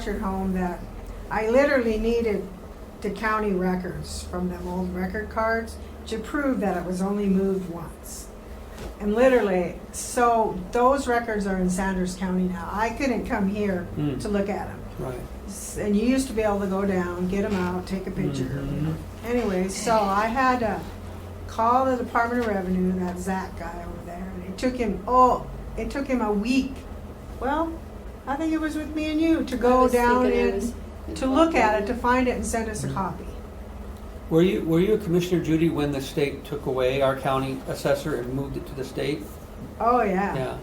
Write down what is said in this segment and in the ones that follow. structured home that I literally needed the county records from them old record cards to prove that it was only moved once. And literally, so those records are in Sanders County now. I couldn't come here Mm. to look at them. Right. And you used to be able to go down, get them out, take a picture. Mhm. Anyway, so I had to call the Department of Revenue, that Zach guy over there, and it took him, oh, it took him a week. Well, I think it was with me and you, to I go was down thinking it and, was- to look at it, to find it and send us a Mm-hmm. copy. Were you were you a commissioner, Judy, when the state took away our county assessor and moved it to the state? Oh, yeah. Yeah.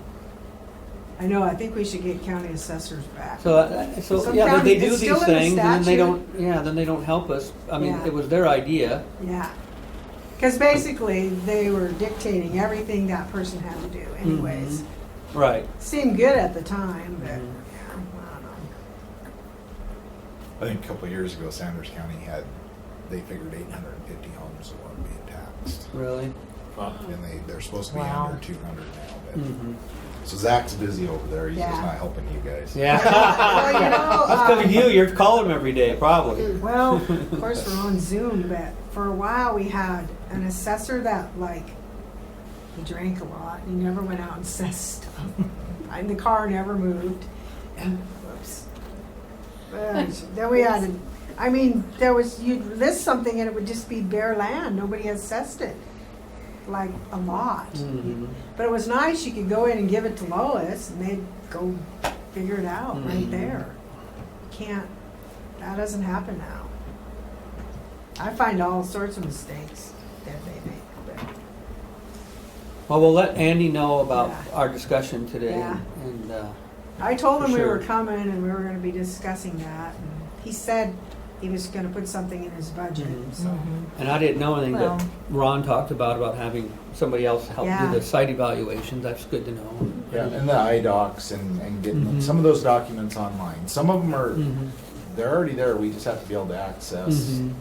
I know, I think we should get county assessors back. So uh, so Some yeah, but they county- do it's these still in the things and then they statute. don't. Yeah, then they don't help us. I mean, Yeah. it was their idea. Yeah. Because basically, they were dictating everything that person had to do anyways. Mhm. Right. Seemed good at the time, but, yeah, Mhm. I don't know. I think a couple of years ago, Sanders County had, they figured eight hundred and fifty homes that weren't being taxed. Really. And they, they're supposed to be Wow. under two hundred now, hmm but, so Zach's busy over there, he's Yeah. just not helping you guys. Yeah. Well, you know, That's because um, of you. You're calling them every day, probably. Well, of course, we're on Zoom, but for a while we had an assessor that, like, he drank a lot. He never went out and assessed stuff. And the car never moved. And, whoops. But then we had, a- I mean, there was, you'd list something and it would just be bare land. Nobody assessed it. Like, a lot. Mhm. But it was nice. You could go in and give it to Lois, and they'd go figure it out right Mhm. there. Can't. That doesn't happen now. I find all sorts of mistakes that they make. But Well, we'll let Andy know about Yeah. our discussion today. Yeah. And, and uh, I told him For we were sure. coming and we were going to be discussing that. And he said he was going to put something in his budget. Mhm. So and I didn't know anything Well- that Ron talked about about having somebody else help Yeah. do the site evaluations. That's good to know. Yeah, and the IDocs and, and getting, Mhm. some of those documents online, some of them are, Mhm. they're already there, we just have to be able to access Mhm.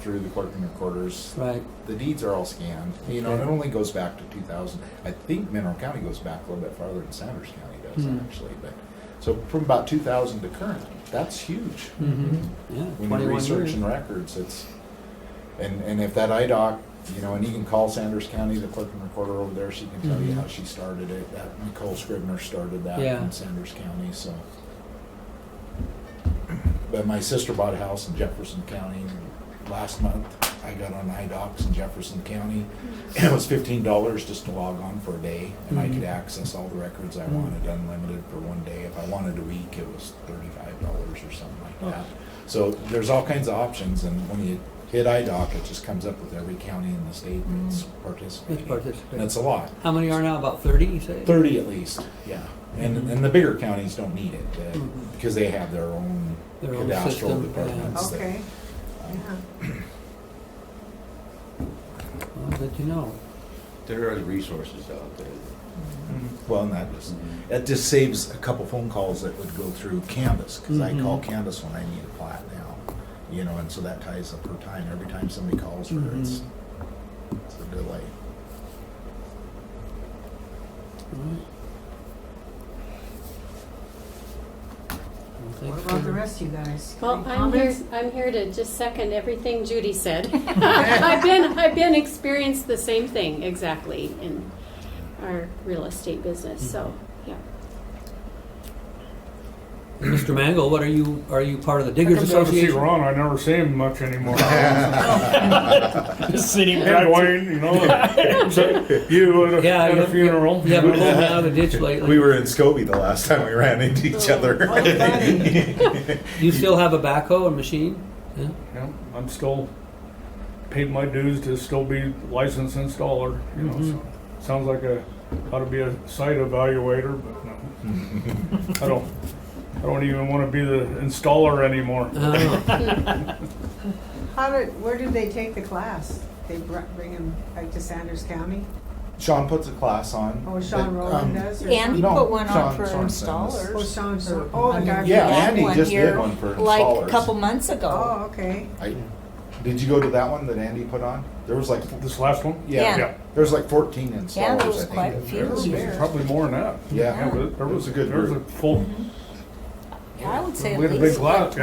through the clerk and recorders. Right. The deeds are all scanned, you know, and it Okay. only goes back to two thousand, I think Mineral County goes back a little bit farther than Sanders County does Mhm. actually, but, so from about two thousand to current, that's huge. Mm-hmm. Yeah. when you 21 research years. and records, it's, and, and if that IDOC, you know, and you can call Sanders County, the clerk and recorder over there, she can tell you Mhm. how she started it, that Nicole Scribner started that Yeah. in Sanders County, so. But my sister bought a house in Jefferson County last month, I got on IDOCs in Jefferson County, and it was fifteen dollars just to log on for a day, and I could Mhm. access all the records I Mm. wanted unlimited for one day, if I wanted a week, it was thirty-five dollars or something like Oh. that. So there's all kinds of options, and when you hit IDOC, it just comes up with every county in the state that's Let's participating. participate. And it's a lot, How many are now? About 30, you say? thirty at least, yeah. And, Mhm. and the bigger counties don't need it, uh, Mhm. because they have their own Their own cadastral system, departments. that- okay, yeah. Oh. Well, good to know. There are resources out there. Well, and that just, that just saves a couple phone calls that would go through Canvas, because I call Mhm. Canvas when I need a plat now, you know, and so that ties up her time. Every time somebody calls her, it's, it's a delay. Alright. Well, What thanks about the for- rest of you guys? Well, Any I'm here, comments? I'm here to just second everything Judy said. I've been, I've been experienced the same thing exactly in our real estate business, so, yeah. Mr. Mangle, what are you, are you part of the Diggers I never see Association? Ron. I never see him much anymore. sitting Hey, Wayne, you know, so you at a, Yeah, at you a have- funeral. You haven't pulled me out of the ditch We lately. were in Scobie the last time we ran into each other. You still have a backhoe and machine? Yeah. Yeah, I'm still paid my dues to still be licensed installer. You know, Mhm. so sounds like a how to be a site evaluator, but no, I don't. I don't even want to be the installer anymore. Oh, How did, where did they take the class? They br- bring him like to Sanders County? Sean puts a class on. Oh, Sean but, Rowland um, does? or And he No, put one Sean on for Sorensen is- Oh, installers. Sean, Sor- oh, the guy. Yeah, We had Andy one just did here, one for Like installers. a couple months ago. Oh, okay. I, did you go to that one that Andy put on? There was like, This last one, yeah, Yeah. there was like 14 installers. Yeah, there was I think, quite a that few there. here. probably more than that. Yeah, Yeah, but there was That's a good There was a group. full I would say at We had a big least like lot,